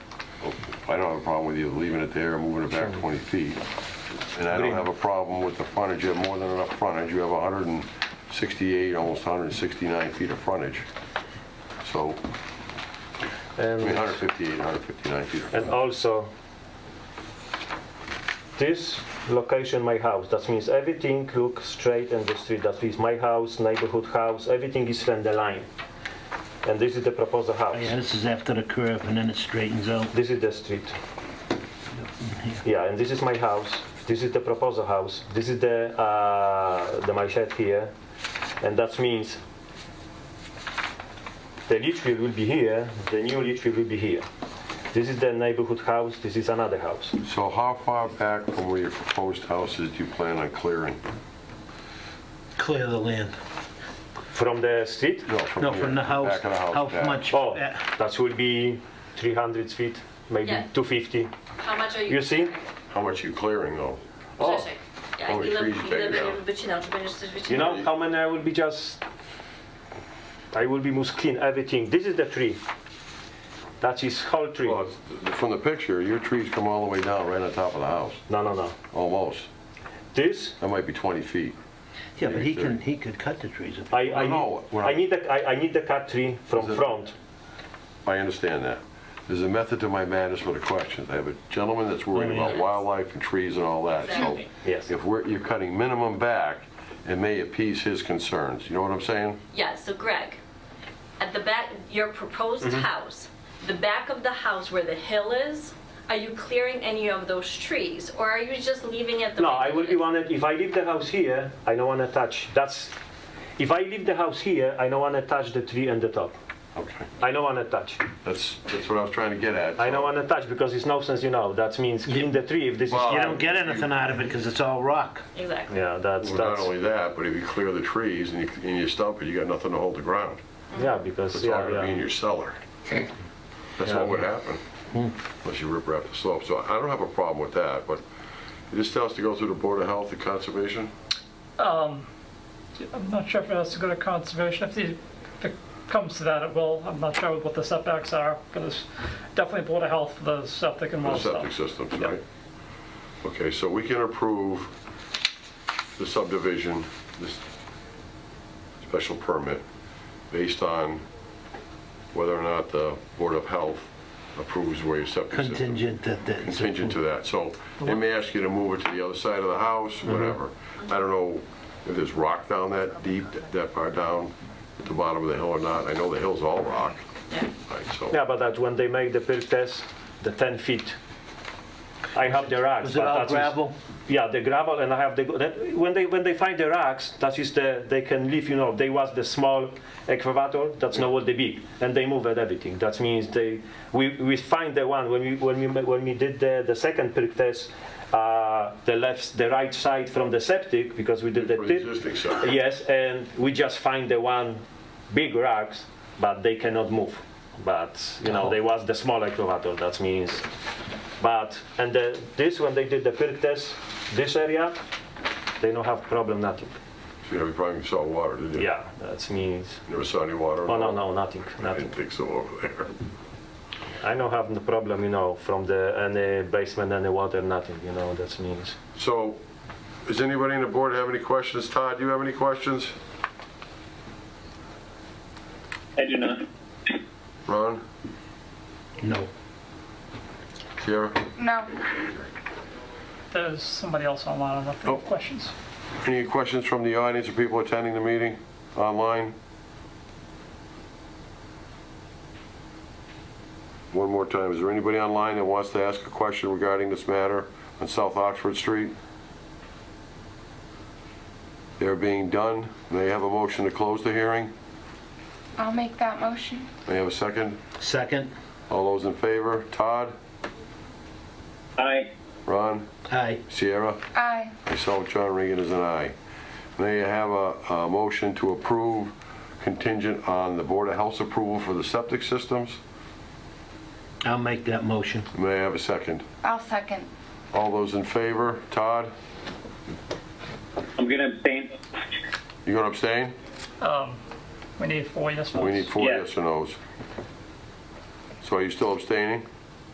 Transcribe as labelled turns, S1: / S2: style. S1: I don't have a problem with you leaving it there or moving it back 20 feet. And I don't have a problem with the frontage, you have more than enough frontage, you have 168, almost 169 feet of frontage. So, I mean,
S2: And
S1: 158, 159 feet. of
S2: And
S1: frontage.
S2: also, this location, my house, that means everything looks straight in the street. That means my house, neighborhood house, everything is from the line. And this is the proposed
S3: Yeah,
S2: house.
S3: this is after the curve and then it straightens out.
S2: This is the street. Yeah, and this is my house. This is the proposed house. This is the, uh, the my shed here. And that means the Litchfield will be here, the new Litchfield will be here. This is the neighborhood house, this is another house.
S1: So how far back from where your proposed house is do you plan on clearing?
S3: Clear the land.
S2: From the street?
S3: No, from the
S1: here,
S3: house,
S1: Back of the house.
S3: how
S1: back.
S3: much?
S2: Oh,
S3: back.
S2: that will be 300 feet, maybe
S4: Yeah.
S2: 250.
S4: How much are you?
S2: You see?
S1: How much are you clearing though?
S2: O,
S4: Grzesiek, ja,
S1: Oj,
S4: ile,
S1: freeze
S4: ile
S1: back
S4: będziesz
S1: down.
S4: wycinał? Czy będziesz coś
S2: you
S4: wycinał?
S2: know how many I will be just. I will be must clean everything. This is the tree. That is whole tree.
S1: Well, it's- From the picture, your trees come all the way down, right on top of the house,
S2: No, no, no.
S1: almost.
S2: This,
S1: That might be 20 feet.
S3: Yeah, but he can, he could cut the trees. if-
S2: I,
S1: No,
S2: I,
S1: no,
S2: need,
S1: when
S2: I
S1: I-
S2: need the, I, I need the cut tree from
S1: Is it-
S2: front.
S1: I understand that. There's a method to my madness with the questions. I have a gentleman that's worried
S3: Oh, yeah.
S1: about wildlife and trees and all that, so.
S4: Exactly.
S2: Yes.
S1: If we're, you're cutting minimum back, it may appease his concerns. You know what I'm saying?
S4: Yeah, so Greg, at the back, your proposed
S2: Mm-hmm.
S4: house, the back of the house where the hill is, are you clearing any of those trees or are you just leaving it the
S2: No,
S4: way
S2: I
S4: it
S2: will be
S4: is?
S2: wanted. If I leave the house here, I don't want to touch. That's. If I leave the house here, I don't want to touch the tree and the top.
S1: Okay.
S2: I don't want to touch.
S1: That's, that's what I was trying to get at.
S2: I don't want to touch because it's no sense, you know. That means clean the tree if this
S1: Well,
S2: is.
S3: You don't get anything out of it because it's all rock.
S4: Exactly.
S2: Yeah, that's
S1: Well,
S2: that's
S1: Not only that, but if you clear the trees and you, and you stump it, you got nothing to hold the ground.
S2: yeah because
S1: It's all
S2: yeah,
S1: gonna be in
S2: yeah.
S1: your cellar. That's
S2: Yeah. Hmm.
S1: what would happen, unless you rip wrap the slope. So I don't have a problem with that, but this has to go through the Board of Health and Conservation?
S5: I'm not sure if it has to go to conservation. If the- if it comes to that, it will. I'm not sure what the setbacks are, but it's definitely Board of Health, for the septic and
S1: The
S5: well
S1: septic
S5: stuff.
S1: systems,
S5: Yeah.
S1: right? Okay, so we can approve the subdivision, this special permit, based on whether or not the Board of Health approves where your septic system.
S3: Contingent that, that.
S1: Contingent to that, so they may ask you to move it to the other side of the house, whatever. I don't know if there's rock down that deep, that far down, at the bottom of the hill or not. I know the hill's all rock,
S4: Yeah.
S1: right, so.
S2: yeah, but that when they make the perk test, the 10 feet. I have the rocks.
S3: Was it
S2: but
S3: all
S2: that is-
S3: gravel?
S2: yeah, the gravel, and I have the that, when they when they find the rocks, that is the they can leave. You know, they was the small excavator. That's not what they big, and they move at everything. That means they we, we find the one when we when we ma- when we did the the second perk test. Uh, the left, the right side from the septic because we did the
S1: For the
S2: tip.
S1: existing septic.
S2: Yes, and we just find the one big rocks, but they cannot move. But you know, they was the small excavator. That means, but and the, this when they did the perk test, this area, they don't have problem nothing.
S1: You have a problem with salt water, did you?
S2: Yeah, that means.
S1: Never saw any water?
S2: Oh no, no, nothing,
S1: I
S2: nothing.
S1: didn't think so over there.
S2: I don't have the problem, you know, from the any basement, any water, nothing. You know, that means.
S1: So, does anybody on the board have any questions? Todd, do you have any questions?
S6: I do not.
S1: Ron?
S3: No.
S1: Sierra?
S7: No.
S5: There's somebody else online, I don't know if they
S1: Oh.
S5: have questions.
S1: Any questions from the audience or people attending the meeting online? One more time, is there anybody online that wants to ask a question regarding this matter on South Oxford Street? They're being done. May I have a motion to close the hearing?
S7: I'll make that motion.
S1: May I have a second?
S3: Second,
S1: All those in favor? Todd?
S6: Aye.
S1: Ron?
S3: aye.
S1: Sierra?
S7: Aye.
S1: Myself, John Regan, is an aye. May I have a, a motion to approve contingent on the Board of Health's approval for the septic systems?
S3: I'll make that motion.
S1: May I have a second?
S7: I'll second.
S1: All those in favor? Todd,
S6: I'm going to abstain.
S1: you gonna abstain?
S5: Um, We need four yes votes.
S1: We need four
S6: Yeah.
S1: yes or no's. So are you still abstaining?